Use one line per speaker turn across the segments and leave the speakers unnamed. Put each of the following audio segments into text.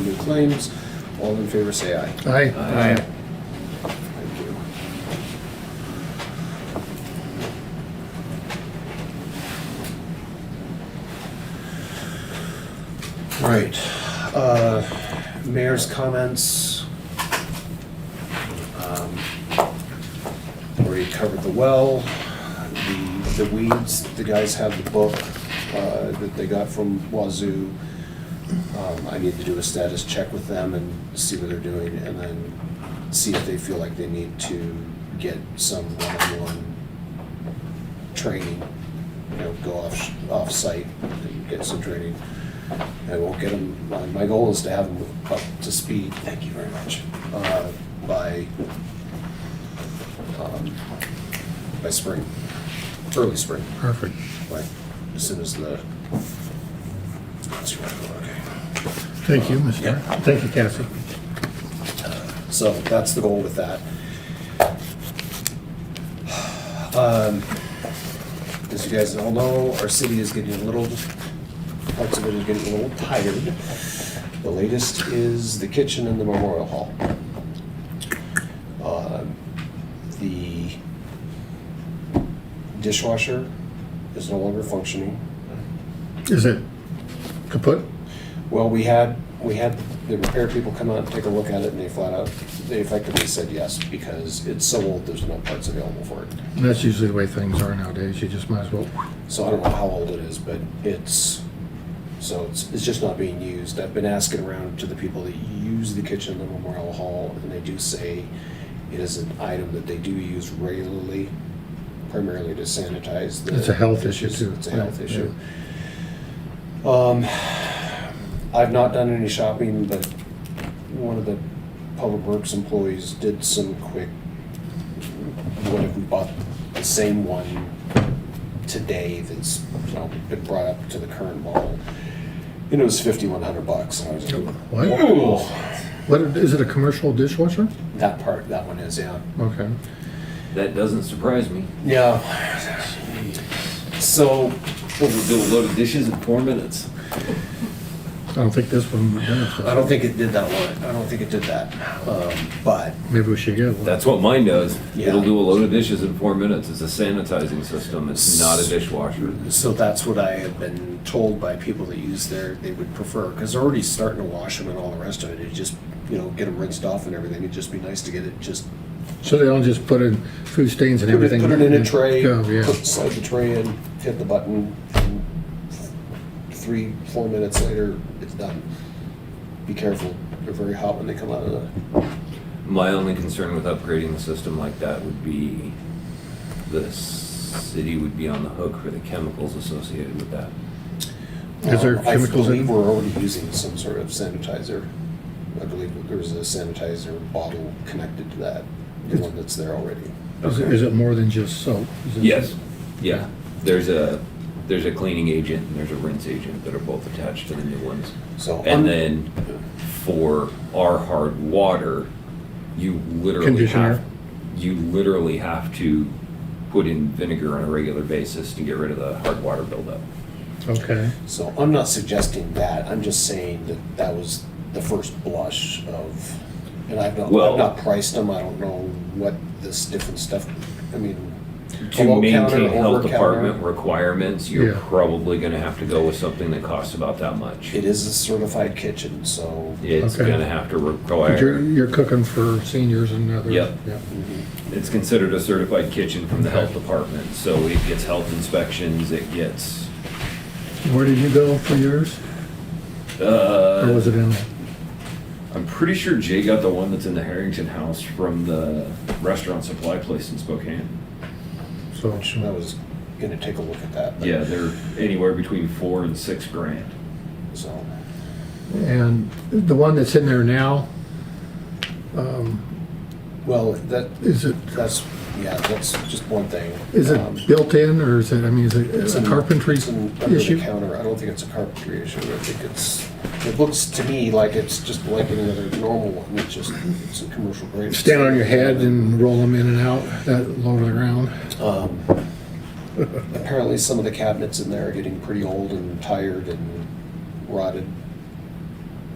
new claims. All in favor, say aye.
Aye.
Thank you. All right, uh, mayor's comments. Um, Already covered the well, the, the weeds, the guys have the book, uh, that they got from Wazoo. Um, I need to do a status check with them and see what they're doing, and then see if they feel like they need to get some one-on-one training, you know, go off, off-site and get some training. I will get them, my, my goal is to have them up to speed, thank you very much, uh, by, um, by spring, early spring,
Perfect.
like, as soon as the, that's right, okay.
Thank you, Mr.
Yep.
Thank you, Kathy.
So that's the goal with that. Um, As you guys all know, our city is getting a little, parts of it is getting a little tired. The latest is the kitchen and the memorial hall. Um, The dishwasher is no longer functioning.
Is it kaput?
Well, we had, we had the repair people come out and take a look at it, and they flat out, they effectively said yes, because it's so old, there's no parts available for it.
That's usually the way things are nowadays. You just might as well,
So I don't know how old it is, but it's, so it's, it's just not being used. I've been asking around to the people that use the kitchen, in the Memorial Hall, and they do say it is an item that they do use regularly, primarily to sanitize the.
It's a health issue,
dishes.
too.
It's a health
Yeah,
issue. Um, I've not done any shopping, but one of the Public Works employees did some quick, what if we bought the same one today that's, you know, been brought up to the current model? And it was fifty-one hundred bucks, and I was like,
what?
"Ooh."
What, is it a commercial dishwasher?
That part, that one is, yeah.
Okay.
That doesn't surprise me.
Yeah. So,
We'll do a load of dishes in four minutes.
I don't think this one would benefit.
I don't think it did that one, I don't think it did that, um, but
Maybe we should get one.
That's what mine does.
Yeah.
It'll do a load of dishes in four minutes. It's a sanitizing system. It's not a dishwasher.
So that's what I have been told by people that use their, they would prefer, because they're already starting to wash them and all the rest of it, it just, you know, get them rinsed off and everything, it'd just be nice to get it, just
So they don't just put in food stains and
put it,
everything?
put it in a tray,
Go, Yeah,
put- slide the tray in, hit the button, and three, four minutes later, it's done. Be careful, they're very hot when they come out of the,
My only concern with upgrading a system like that would be the city would be on the hook for the chemicals associated with that.
Is there
Um, I
chemicals in-
believe We're already using some sort of sanitizer. I believe that there's a sanitizer bottle connected to that, the one that's there already.
Is it- is it more than just soap? Is it-
Yes, yeah. There's a, there's a cleaning agent and there's a rinse agent that are both attached to the new ones.
So. I'm-
And then for our hard water, you literally
Conditioner.
have, you literally have to put in vinegar on a regular basis to get rid of the hard water buildup.
Okay.
So I'm not suggesting that, I'm just saying that that was the first blush of, and I've not, I've
Well-
not priced them, I don't know what this different stuff, I mean.
To
below counter,
maintain health
over counter,
department requirements, you're
Yeah.
probably gonna have to go with something that costs about that much.
It is a certified kitchen, so.
It's
Okay.
gonna have to
You're,
require,
you're cooking for seniors and others?
Yep.
Yeah.
it's considered a certified kitchen from the health department, so it gets health inspections, it gets,
Where did you go for yours? Or
uh,
was it in?
I'm pretty sure Jay got the one that's in the Harrington house from the restaurant supply place in Spokane.
So,
I was gonna take a look at that. but-
Yeah, they're anywhere between four and six grand.
So,
and the one that's in there now,
well, that,
is it
That's, yeah, that's just one thing.
Is
Um,
it built in, or is it, I mean, is
it's
it
an-
a carpentry
it's an under the
issue?
counter, I don't think it's a carpentry issue, I think it's, it looks to me like it's just like any other normal one, it's just, it's a commercial grade.
Stand on your head and roll them in and out, that low to the ground?
Um, Apparently, some of the cabinets in there are getting pretty old and tired and rotted,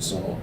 so